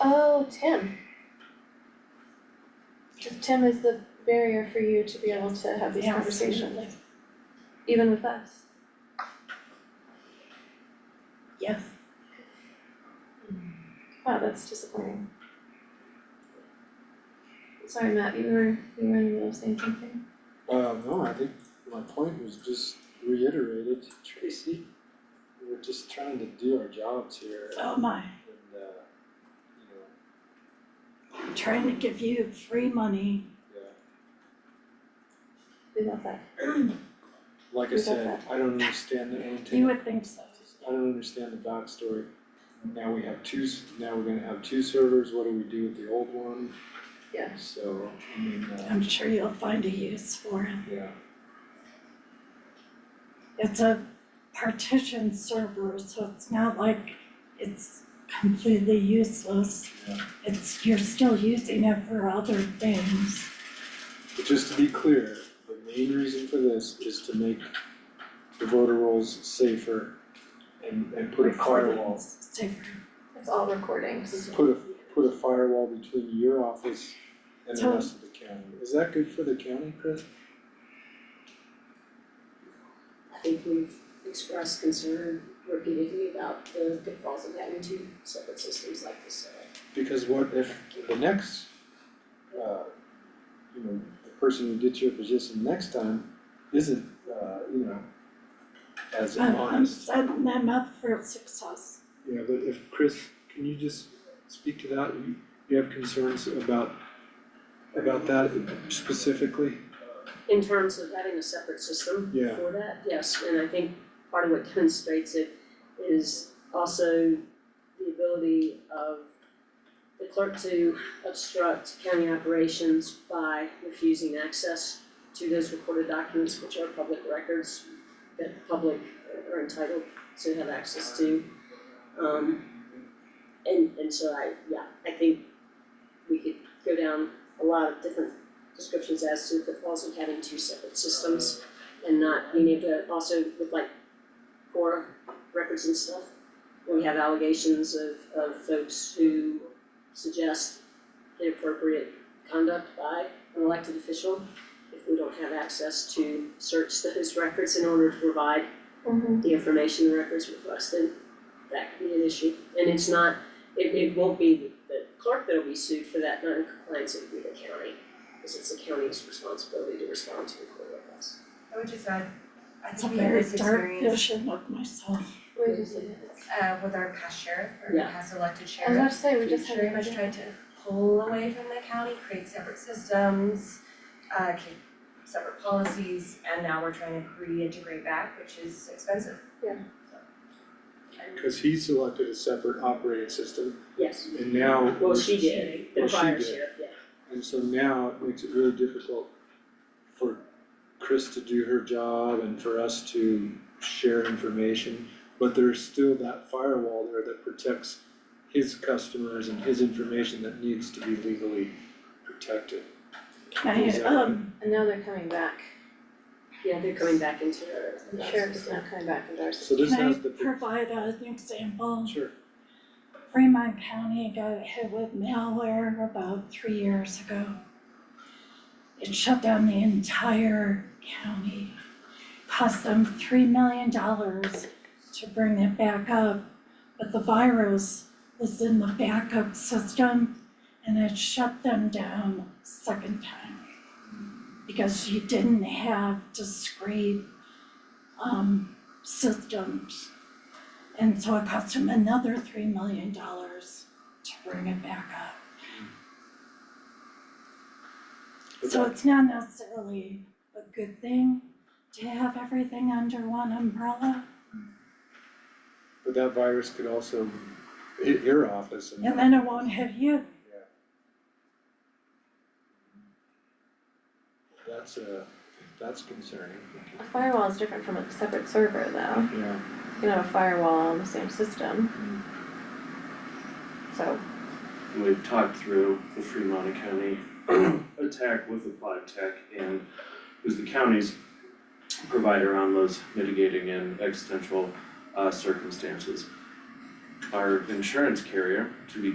Oh, Tim. If Tim is the barrier for you to be able to have these Yeah, conversations, even with us. Yeah. Wow, that's disappointing. Sorry, Matt, you were, you were in the middle of saying something. Uh, no, I think my point was just reiterated, Tracy, we're just trying to do our jobs here and, uh, Oh my, you know, I'm trying to give you free money. yeah. We love that. Like I We got said, that. I don't understand the antenna. You would think so. I don't understand the backstory. Now we have two, s- now we're gonna have two servers, what do we do with the old one? Yeah. So, I mean, uh, I'm sure you'll find a use for it. yeah, It's a partition server, so it's not like it's completely useless. Yeah. It's, you're still using it for other things. but just to be clear, the main reason for this is to make the voter rolls safer and, and put a firewall, recordings, safer. It's all recordings. put a, put a firewall between your office and the So- rest of the county. Is that good for the county, Chris? I think we've expressed concern repeatedly about the pitfalls of having two separate systems like this, so. Because what if the next, uh, you know, the person who gets your position next time isn't, uh, you know, as Oh, I'm, I'm honest? setting them up for success. Yeah, but if, Chris, can you just speak to that? You, you have concerns about, about that specifically? In terms of having a separate system Yeah. for that, yes, and I think part of what demonstrates it is also the ability of the clerk to obstruct county operations by refusing access to those recorded documents, which are public records that the public are entitled to have access to. Um, and, and so I, yeah, I think we could go down a lot of different descriptions as to the pitfalls of having two separate systems and not being able to also with like core records and stuff. We have allegations of, of folks who suggest inappropriate conduct by an elected official if we don't have access to search those records in order to provide Mm-hmm. the information the records requested, that could be an issue. And it's not, it, it won't be the clerk that'll be sued for that non-compliance, it'll be the county, because it's the county's responsibility to respond to the court requests. I would just add, I It's a think we had very this dark experience vision of myself. We just, I uh with our past sheriff or Yeah. past elected was about sheriff. to say, we We just had. very much tried to pull away from the county, create separate systems, uh keep separate policies, and now we're trying to reintegrate back, which is expensive. Yeah. So, Cause he selected a separate operating system Yes, and now. well, she did, the Well, she prior did. sheriff, yeah. And so now it makes it really difficult for Chris to do her job and for us to share information. But there's still that firewall there that protects his customers and his information that needs to be legally protected. Can I, Exactly. um, And now they're coming back. yeah. they're coming back into her. The sheriff is now coming back into our So system. this can I has the. provide an example? Sure. Fremont County got hit with malware about three years ago. It shut down the entire county. Cost them three million dollars to bring it back up, but the virus was in the backup system and it shut them down second time. Because you didn't have discrete um systems. And so it cost him another three million dollars to bring it back up. But So that- it's not necessarily a good thing to have everything under one umbrella. But that virus could also hit your office and. And then it won't hit you. That's uh that's concerning. A firewall is different from a separate server though. Yeah. You can have a firewall on the same system. So, And We've talked through the Fremont County attack with Applied Tech and who's the county's provider on those mitigating and existential uh circumstances. Our insurance carrier, to be